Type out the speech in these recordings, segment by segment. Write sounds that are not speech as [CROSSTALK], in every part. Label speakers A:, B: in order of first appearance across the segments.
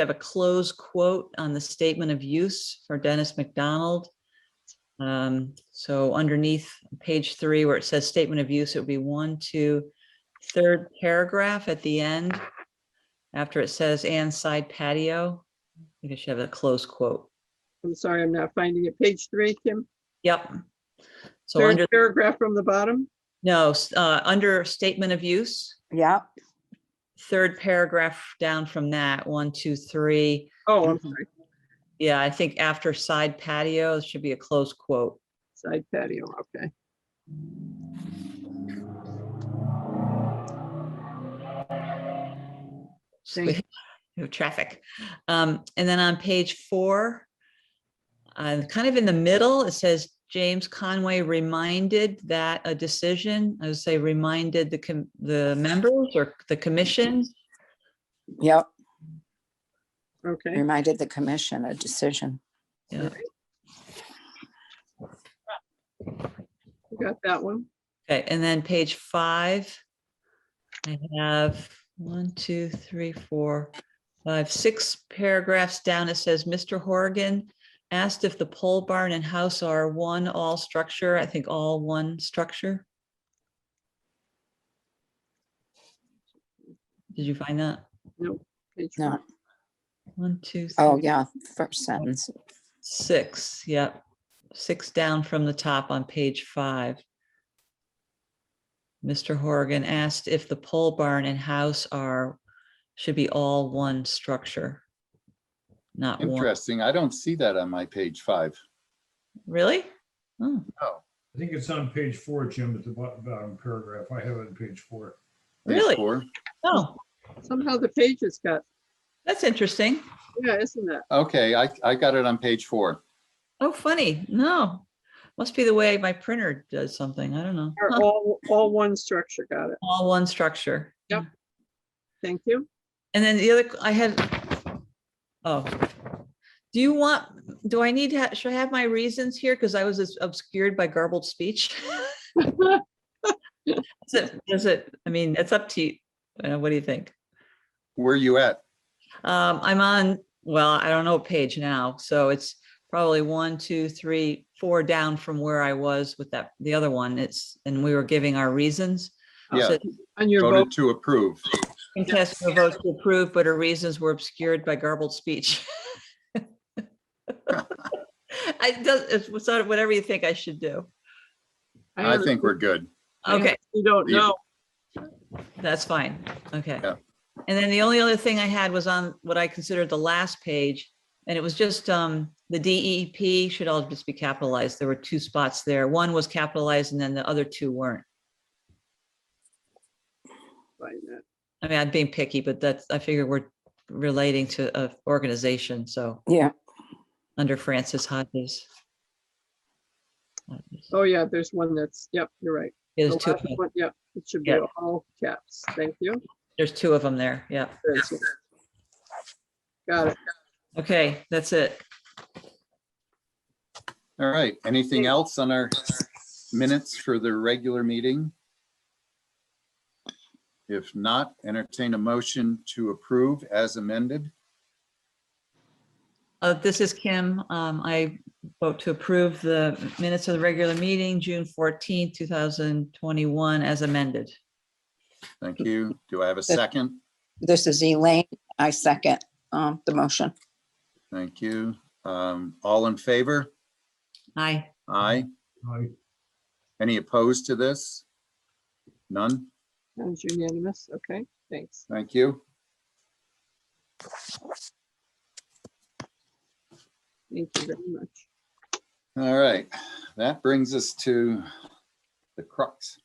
A: have a close quote on the statement of use for Dennis McDonald. Um, So underneath page three, where it says statement of use, it would be one, two, third paragraph at the end. After it says and side patio, you should have a close quote.
B: I'm sorry, I'm not finding it. Page three, Kim,
A: Yep. So under,
B: third paragraph from the bottom.
A: no, s- uh, under statement of use,
C: Yeah,
A: third paragraph down from that, one, two, three.
B: Oh,
A: Mm-hmm.
B: I'm sorry,
A: Yeah, I think after side patio, it should be a close quote.
B: side patio, okay.
A: So [LAUGHS]
B: Thank
A: we have traffic. Um, and then on page four, uh, kind of in the middle, it says James Conway reminded that a decision, I would say reminded the, com- the members or the commission.
C: yep.
B: Okay,
C: Reminded the commission a decision.
A: Yeah.
B: we got that one.
A: Okay, and then page five. I have one, two, three, four, five, six paragraphs down. It says, Mr. Horgan asked if the pole barn and house are one all structure. I think all one structure. Did you find that?
B: No. page
C: No.
B: one.
A: One, two,
C: Oh,
A: three,
C: yeah, first sentence.
A: six, yep. Six down from the top on page five. Mr. Horgan asked if the pole barn and house are, should be all one structure. Not one,
D: Interesting. I don't see that on my page five.
A: really? Oh,
E: I think it's on page four, Jim, at the bot- bottom paragraph. I have it on page four.
D: Page
A: Really?
D: four.
A: oh,
B: Somehow the pages got,
A: that's interesting.
B: yeah, isn't that?
D: Okay, I, I got it on page four.
A: Oh, funny. No. Must be the way my printer does something. I don't know.
B: Are
A: Huh.
B: All, all one structure, got it.
A: All one structure.
B: Yep. Thank you.
A: And then the other, I had, oh, do you want, do I need, to ha- should I have my reasons here? Because I was obscured by garbled speech. Is it, is it, I mean, it's up to you. Uh, What do you think?
D: Where you at?
A: Um, I'm on, well, I don't know what page now, so it's probably one, two, three, four down from where I was with that, the other one. It's, and we were giving our reasons.
D: Yeah,
A: So
B: On your vote,
D: voted to approve.
A: Contest your votes to approve, but her reasons were obscured by garbled speech. [LAUGHS] I, it does- it's it's sort of whatever you think I should do.
B: I
D: I think we're good.
A: Okay,
B: you don't
D: Yeah.
B: know.
A: that's fine. Okay.
D: Yeah.
A: And then the only other thing I had was on what I considered the last page. And it was just, um, the DEP should all just be capitalized. There were two spots there. One was capitalized and then the other two weren't.
B: by that.
A: I mean, I'm being picky, but that's, I figure we're relating to a organization, so
C: Yeah,
A: under Francis Hodges.
B: Oh, yeah, there's one that's, yep, you're right.
A: There's
B: The
A: two,
B: last one, Yep, it should be
A: Yeah.
B: all caps. Thank you.
A: there's two of them there, yeah.
B: There it is. Got it.
A: Okay, that's it.
D: All right. Anything else on our minutes for the regular meeting? If not, entertain a motion to approve as amended.
A: Uh, this is Kim. Um, I vote to approve the minutes of the regular meeting, June 14, thousand twenty-one, as amended.
D: Thank you. Do I have a second?
C: this is Elaine. I second um, the motion.
D: Thank you. Um, all in favor?
A: Aye.
D: Aye.
E: I
D: Any opposed to this? None?
B: That was unanimous. Okay, thanks.
D: Thank you.
B: Thank you very much.
D: All right, that brings us to the crux.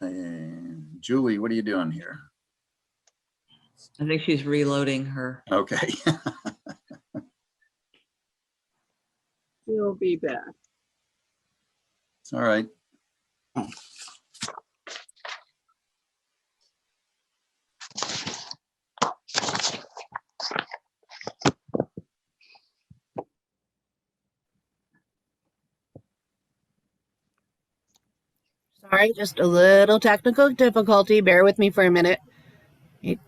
D: And Julie, what are you doing here?
A: I think she's reloading her.
D: Okay, [LAUGHS]
B: We'll be back.
D: all right.
F: Sorry, just a little technical difficulty. Bear with me for a minute.